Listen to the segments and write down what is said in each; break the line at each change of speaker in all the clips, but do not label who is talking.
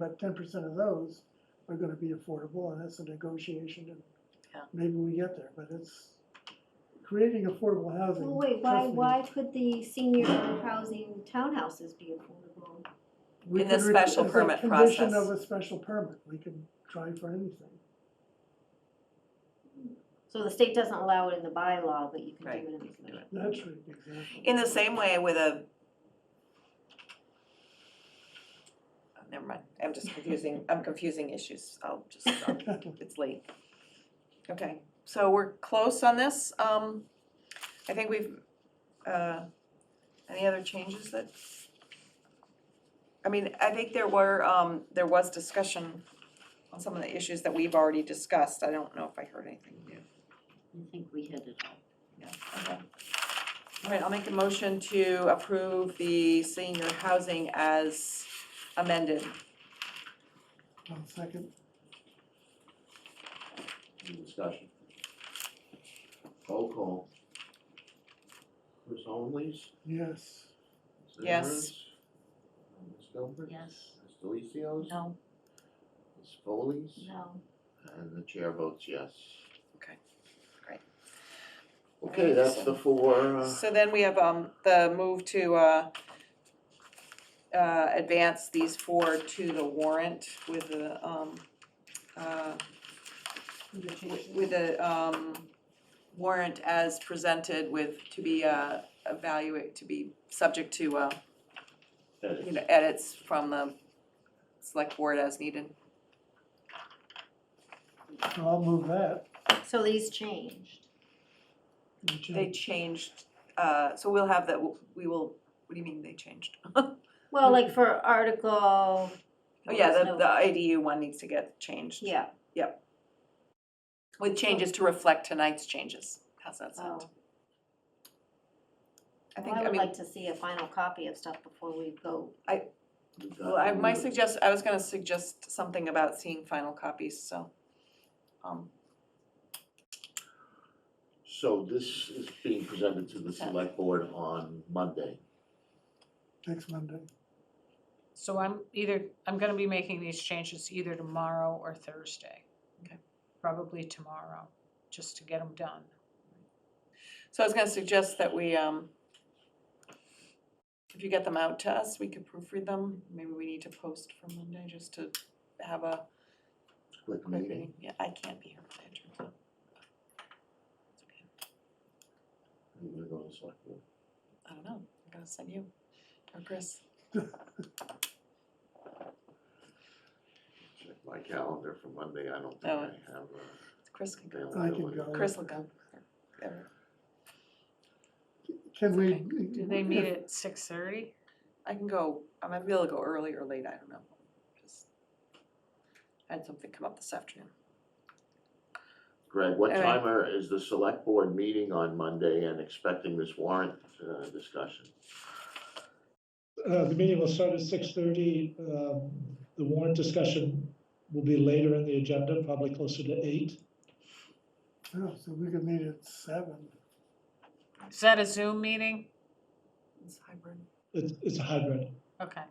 But ten percent of those are gonna be affordable, and that's a negotiation, and
Yeah.
maybe we get there, but it's, creating affordable housing,
Well, wait, why,
trust me,
why could the senior housing townhouses be affordable?
we
In the
could re-
special
as a
permit
Condition
process.
of a special permit, we can try for anything.
So the state doesn't allow it in the bylaw, but you can do
Right,
it in the
you can do
special.
it.
That's right, exactly.
In the same way with a. oh, Never mind, I'm just confusing, I'm confusing issues, I'll just, I'll- it's late. Okay, so we're close on this, um, I think we've, uh, any other changes that? I mean, I think there were, um, there was discussion on some of the issues that we've already discussed, I don't know if I heard anything new.
I think we hit it all.
Yeah, okay. All right, I'll make a motion to approve the senior housing as amended.
One second,
Any discussion? Roll call. Chris Holmes?
yes.
Ms.
Yes.
Evers, uh, Ms. Gilbert?
Yes.
Ms. Delicios?
No.
Ms. Foley's?
No.
And the chair votes yes.
Okay, great.
Okay, that's the four, uh,
So then we have, um, the move to, uh, uh, advance these four to the warrant with the, um, uh, with the, um, warrant as presented with, to be, uh, evaluate, to be subject to, uh, you
edits.
know, edits from the select board as needed.
So I'll move that.
So these changed.
and
They
Mm.
change-
changed, uh, so we'll have that, we will, what do you mean they changed? Oh,
Well, like for Article.
yeah, the,
No.
the IDU one needs to get changed.
Yeah,
With changes to reflect tonight's changes. How's that sound?
oh,
I
well,
think,
I
I
would
mean,
like to see a final copy of stuff before we go.
We've got
well, I,
Mm.
my
the-
suggest, I was gonna suggest something about seeing final copies, so. um,
So this is being presented to the select board on Monday.
Next Monday,
So I'm either, I'm gonna be making these changes either tomorrow or Thursday.
Okay.
Probably tomorrow, just to get them done.
So I was gonna suggest that we, um, if you get them out to us, we could proofread them. Maybe we need to post for Monday just to have a
Quick
quick
meeting.
meeting. Yeah, I can't be here for that, it turns out. It's okay.
You're gonna go to the select board.
I don't know, I'm gonna send you, or Chris.
Check my calendar for Monday. I don't think
Oh.
I have uh,
Chris can go,
I can
availability.
go.
Oh, Chris will go. Or-
Can we?
Do they meet at six thirty?
I can go, I might be able to go early or late, I don't know. Just- I had something come up this afternoon.
Greg, what
All right.
time are- is the select board meeting on Monday and expecting this warrant uh, discussion?
Uh, the meeting will start at six thirty. Um, the warrant discussion will be later in the agenda, probably closer to eight.
Oh, so we could meet at seven.
Is that a Zoom meeting?
It's hybrid.
It's, it's a hybrid.
Okay,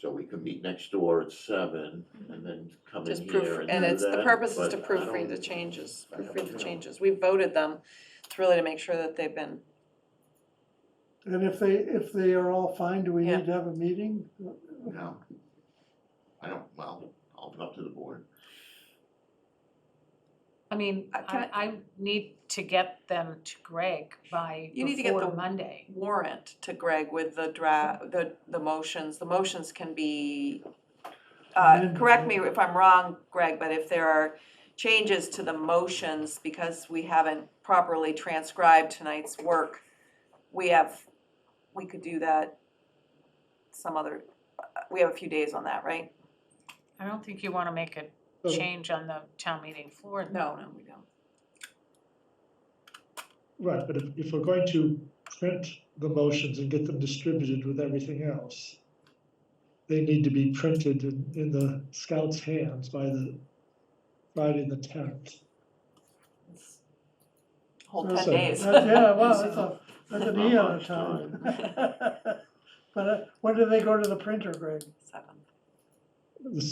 So we could meet next door at seven and then come in
Just
here
proof,
and
and
do
it's, the
that,
purpose is
but
to
I
proofread the
don't-
changes,
I don't
proofread the
know.
changes. We voted them, it's really to make sure that they've been,
And if they, if they are all fine, do we
Yeah.
need to have a meeting?
No. I don't, well, I'll up to the board.
I mean,
Uh, can
I, I need to get them to Greg by
You need to get
before
the-
Monday.
warrant to Greg with the draft, the, the motions, the motions can be, uh,
Amended,
correct me
right?
if I'm wrong, Greg, but if there are changes to the motions because we haven't properly transcribed tonight's work, we have, we could do that some other, we have a few days on that, right?
I don't think you wanna make a
So
change on the town meeting floor.
No, no, we don't.
Right, but if, if we're going to print the motions and get them distributed with everything else, they need to be printed in, in the scouts' hands by the, Friday the tenth.
It's a Whole
That's
ten
a-
days.
That's- Yeah, well, that's a, that's an
Not
eon of
much
time. But uh, when do they go to the printer, Greg?
Seven.
The